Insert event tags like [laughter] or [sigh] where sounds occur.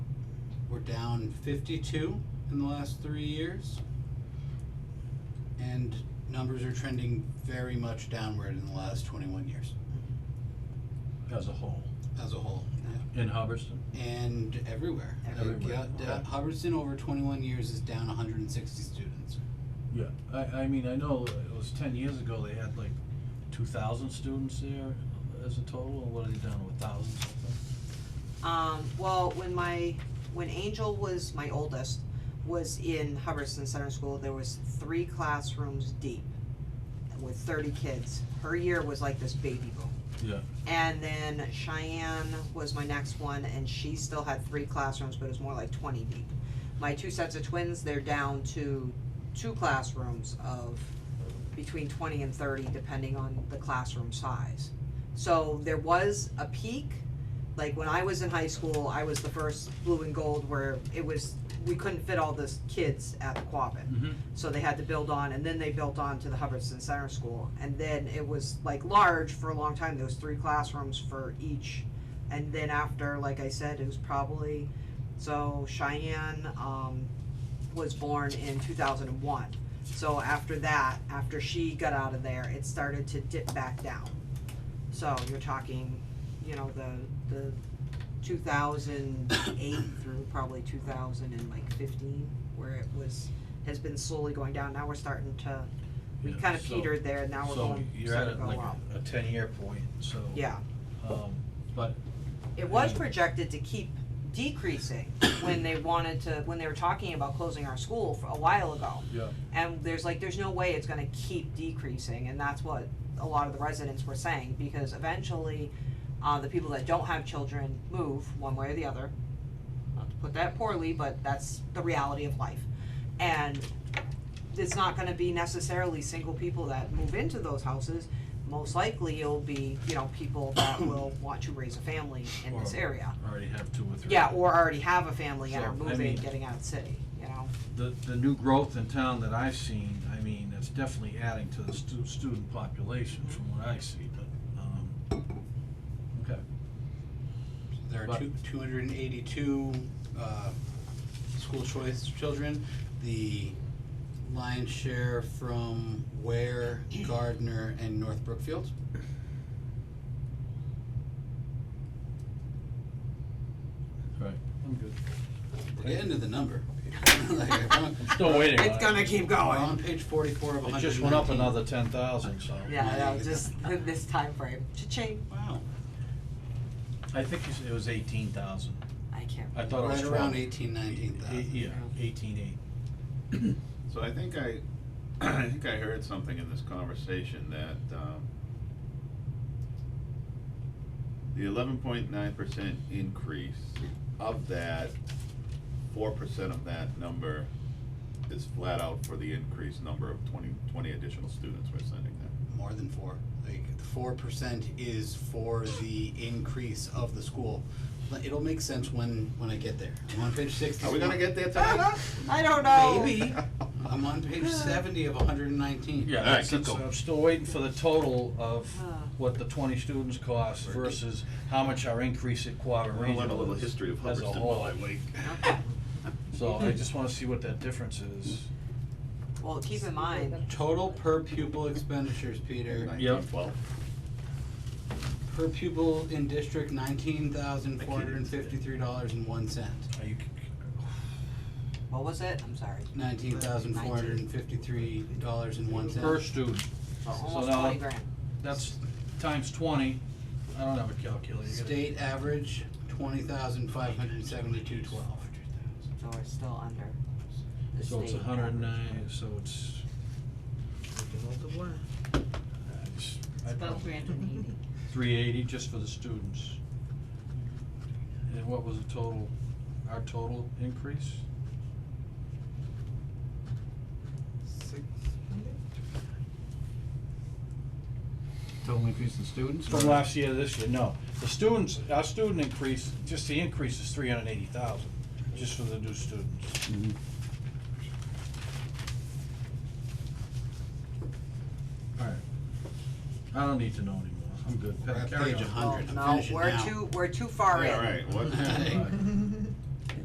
down fifty-two in the last three years. And numbers are trending very much downward in the last twenty-one years as a whole, as a whole, yeah. in Hubbardston? And everywhere. Like, Everywhere, yeah, da- okay. Hubbardston over twenty-one years is down hundred and sixty students. Yeah, I, I mean, I know it was ten years ago, they had like two thousand students there as a total, and what are they down to, a thousand something? Um, well, when my, when Angel was, my oldest, was in Hubbardston Center School, there was three classrooms deep with thirty kids. Her year was like this baby boom. Yeah, And then Cheyenne was my next one, and she still had three classrooms, but it was more like twenty deep. My two sets of twins, they're down to two classrooms of between twenty and thirty, depending on the classroom size. So there was a peak, like when I was in high school, I was the first blue and gold where it was, we couldn't fit all the kids at the Quabbin. mhm, So they had to build on, and then they built on to the Hubbardston Center School. And then it was like large for a long time, there was three classrooms for each. And then after, like I said, it was probably, so Cheyenne, um, was born in two thousand and one. So after that, after she got out of there, it started to dip back down. So you're talking, you know, the, the two thousand eight through probably two thousand and like fifteen, where it was, has been slowly going down, now we're starting to, we Yeah, kinda so- petered there, now we're so going, you're at starting a- to go up. like a ten-year point, so. Yeah, Um, but, it was Yeah. projected to keep decreasing when they wanted to, when they were talking about closing our school for a while ago. yeah, and there's like there's no way it's gonna keep decreasing and that's what a lot of the residents were saying because eventually uh the people that don't have children move one way or the other not to put that poorly but that's the reality of life and it's not gonna be necessarily single people that move into those houses most likely it'll be you know people that [coughs] will want to raise a family in this Or- area already have two or three. yeah or already have a family and So, are I moving mean- getting out of the city you know The, the new growth in town that I've seen, I mean, it's definitely adding to the stu- student population from what I see, but, um, okay. There are But- two, two hundred and eighty-two, uh, school choice children. The lion's share from [clears throat] Ware, Gardner, and North Brookfield. Right. I'm good. We're getting to the [laughs] number. [laughs] Like, I'm on- Still waiting it's gonna keep We're going on page forty-four of It hundred just and went up nineteen. another ten thousand, so. Yeah, no, just in this time frame. Cha-ching. Wow, I think it's- it was eighteen thousand. I can't. I thought it was right around 12. eighteen, nineteen Eight- thousand. Yeah, eighteen eight. So I think I, [clears throat] I think I heard something in this conversation that, um, the eleven point nine percent increase of that, four percent of that number is flat out for the increased number of 20 20 additional students we're sending there. More than four, like, four percent is for the increase of the school. But It'll make sense when, when I get there. I'm on page sixty. Are we [laughs] gonna get there [laughs] tonight? I don't know. Maybe. I'm on page seventy of hundred and nineteen. Yeah, All right, that's, keep that's, going. I'm still waiting for the total of Ah. what the twenty students cost Right. versus how much our increase at Quabbin I'm gonna learn a Regional little is history of as a Hubbardston while whole. I wait. Okay. So I just wanna see what that difference is. Well, keep in mind, Total per pupil expenditures, Peter. Yep. 1912. Per pupil in district, nineteen thousand four hundred and fifty-three dollars and one cent. Are you, what was it? I'm sorry. Nineteen thousand four hundred and fifty-three dollars and one cent. per student, So Almost now- twenty grand. that's times twenty, I don't have a calculator. You gotta- State average, twenty thousand five hundred and seventy-two twelve. So we're still under the So it's state hundred and average. nine, so it's. I just- I'd About probably- three hundred and eighty. Three eighty just for the students. And what was the total, our total increase? Total increase in students? From last year to this year, no. The students, our student increase, just the increase is three hundred and eighty thousand, just for the new students. Mhm. Alright. I don't need to know anymore, I'm good. We're Pat, at carry page on. hundred, I'm No, finishing now. we're too, we're too far in. Yeah, right, what? Alright.